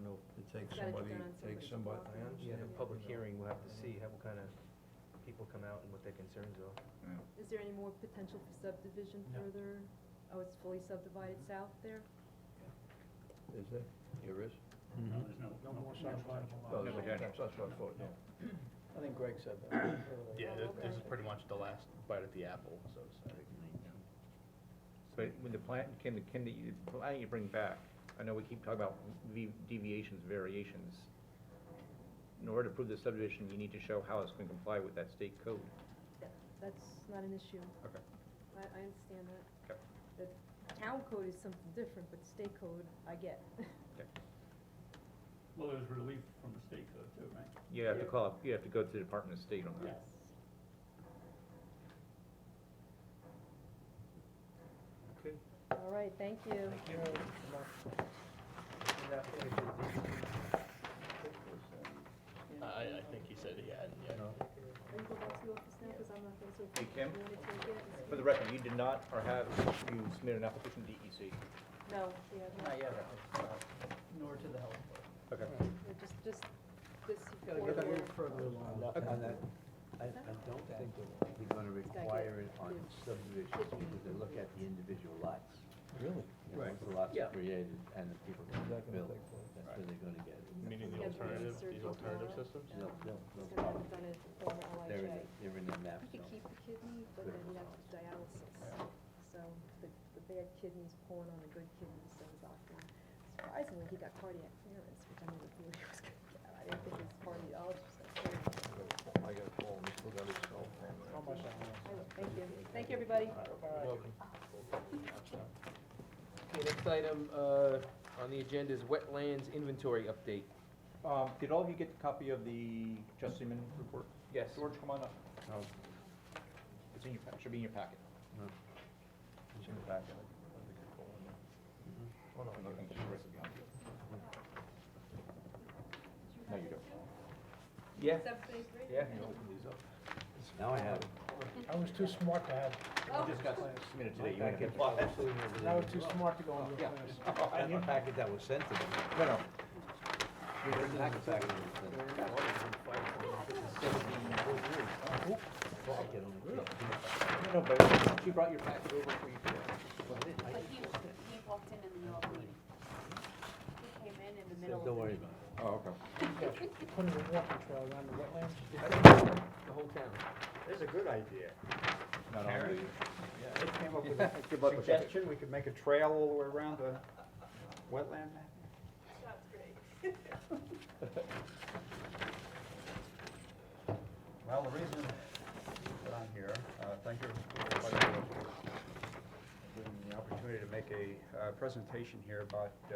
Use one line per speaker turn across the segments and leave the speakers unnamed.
Take
Gotta get
somebody,
done on
take
somebody's
somebody, I
property.
Yeah,
understand.
the public hearing, we'll have to see how, what kind of people come out and what their concerns are.
Is there any more potential for subdivision
No.
further? Oh, it's fully subdivided south there?
Is there? Here is?
No, there's no.
No more subdivided lots.
Oh, there's a, that's what I thought, yeah.
I think Greg said that earlier.
Yeah,
Oh,
this, this is
okay.
pretty much the last bite at the apple, so to say.
But when the plan, can, the can the, the plan you bring back, I know we keep talking about v- deviations, variations. In order to prove the subdivision, you need to show how it's gonna comply with that state code.
That- That's not an issue.
Okay.
I, I understand that.
Okay.
The town code is something different, but state code, I get.
Well, there's relief from the state code too, right?
You have to call, up. you have to go to the Department of State on that.
Okay.
All right, thank you.
You know, Mark, in that page,
I, I think he said he hadn't yet.
Are you going back to the office now, because I'm not going to.
Hey, Kim?
You wanna take it?
For the record, you did not, or have, you submitted an application to E DEC?
No, we have
Not
not.
yet, uh, nor to the health board.
Okay.
We're Just, just this
Gotta get a
corridor.
little further along.
And that- and that, I, I don't think that they're
gotta
gonna
get
require it on
the-
subdivisions, because they look at the individual lots.
Really?
You know,
Right.
once the lots
Yeah.
are created and the people can
They're not gonna
build,
take that.
that's where they're gonna get it.
Meaning the
Yeah, the
alternative, these
research
alternative
on it.
systems?
No, no, no
He's gonna have
problem.
it done at former
They're in,
LHA.
the- they're in the map
He could
zone.
keep the kidney, but then he'd have to do dialysis. So the, the bad kidney's pulling on the good kidney, so the doctor, surprisingly, he got cardiac clearance, which I never thought he was gonna get. I didn't think his cardiologist was
I
gonna clear him.
got a call, we still got his cell phone.
How much I want.
I will- Thank you. Thank you, everybody.
Okay, next item, uh, on the agenda is wetlands inventory update.
Um, did all of you get the copy of the Justinian report?
Yes.
George, come on up. It's in your, pa- should be in your packet.
It's in the back of it. I think
Mm-hmm.
I called him. Oh, no, I got it.
No, you don't.
Yeah, yeah.
Can you open these up?
Now I have it.
I was too smart to have,
You just got submitted today. You ain't get
I was too smart to go into
Yeah. Oh,
a class.
And your packet that was sent to them.
No, no.
Your packet that was sent. I get on the
No,
kid.
no, but she brought your packet over for you today.
Well, I didn't- I
But he, he walked in in the middle of the meeting. He came in in the
said,
middle of the
Don't worry
meeting.
Oh,
about it.
okay.
Put in a walking trail around the wetlands.
The whole town.
There's a good idea.
Not on the-
They came up with a
Good luck with that.
suggestion, we could make a trail all the way around the wetland map. Well, the reason that I'm here, uh, thank you everybody for giving me the opportunity to make a uh, presentation here about uh,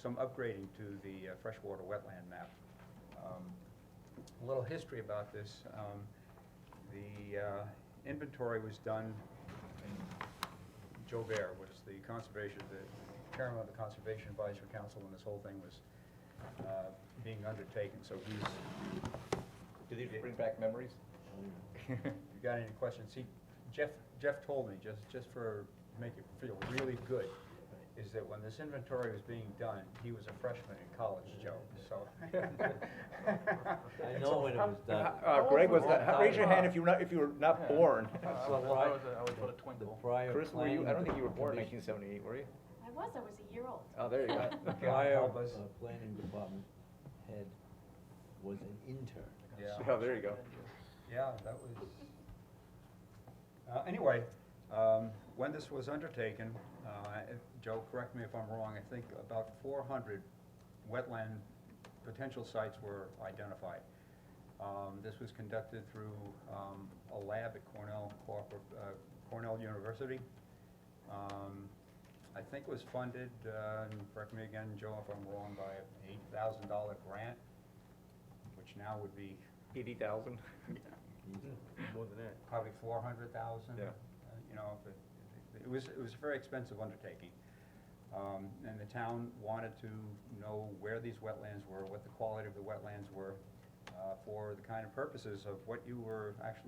some upgrading to the uh, freshwater wetland map. Um, A little history about this. Um, The uh, inventory was done in Joe Bear was the conservation, the chairman of the Conservation Advisory Council when this whole thing was uh, being undertaken, so he's,
Do these bring back memories?
if you got any questions, he, Jeff, Jeff told me, just, just for, make you feel really good, is that when this inventory was being done, he was a freshman in college, Joe, so.
I know when it was done.
Uh, Greg was not, raise your hand if you were not, if you were not born.
That's the pri- The prior
Chris, were you, I don't
planning
think you were born in
commission-
nineteen seventy-eight, were you?
I was, I was a year old.
Oh, there you go.
The prior, uh, planning department head was an intern.
Yeah.
Oh, there you go.
Yeah, that was, uh, anyway, um, when this was undertaken, uh, if- Joe, correct me if I'm wrong, I think about four hundred wetland potential sites were identified. Um, this was conducted through, um, a lab at Cornell Corpor- uh, Cornell University. Um, I think it was funded, uh, and correct me again, Joe, if I'm wrong, by an eight thousand dollar grant, which now would be
Eighty thousand?
More than that.
probably four hundred thousand. Uh,
Yeah.
You know, if it, it was, it was a very expensive undertaking. Um, and the town wanted to know where these wetlands were, what the quality of the wetlands were, uh, for the kind of purposes of what you were actually